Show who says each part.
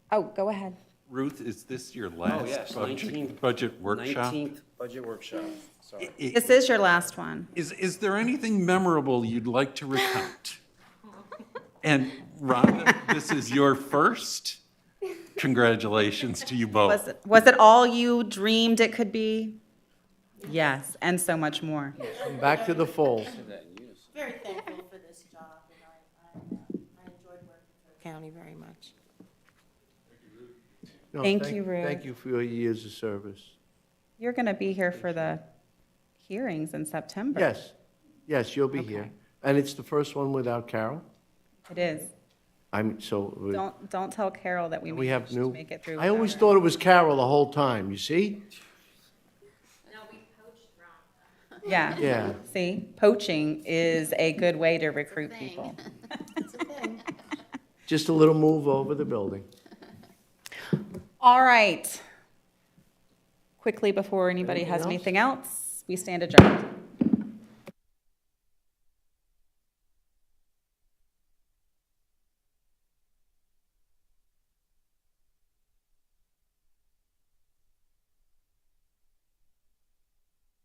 Speaker 1: Oh, go ahead.
Speaker 2: Ruth, is this your
Speaker 3: yes,
Speaker 2: last budget,
Speaker 3: 19th
Speaker 2: budget workshop?
Speaker 3: 19th budget workshop, sorry.
Speaker 4: This is your last one.
Speaker 2: Is, is there anything memorable you'd like to recount? And Rhonda, this is your first. Congratulations to you
Speaker 4: Was,
Speaker 5: Oh.
Speaker 2: both.
Speaker 4: it- was it all you dreamed it could be? Yes, and so much more.
Speaker 5: Back to the fold.
Speaker 6: very thankful for this job, and I, I, uh, I enjoyed working for the county very much.
Speaker 5: No,
Speaker 4: Thank you, Ruth.
Speaker 5: Thank you for your years of service.
Speaker 4: You're going to be here for the hearings in September.
Speaker 5: Yes, yes, you'll be here.
Speaker 4: Okay.
Speaker 5: And it's the first one without Carol?
Speaker 4: It is.
Speaker 5: I'm, so, we-
Speaker 4: Don't, don't tell Carol that we
Speaker 5: we have
Speaker 4: managed to
Speaker 5: new.
Speaker 4: make it through.
Speaker 5: I always
Speaker 4: without
Speaker 5: thought it was Carol the whole time, you see?
Speaker 4: her. Yeah.
Speaker 5: Yeah.
Speaker 4: See, poaching is a good way to recruit people.
Speaker 5: Just a little move over the building.
Speaker 4: All right. Quickly, before anybody
Speaker 5: Anything
Speaker 4: has
Speaker 5: else?
Speaker 4: anything else, we stand adjourned.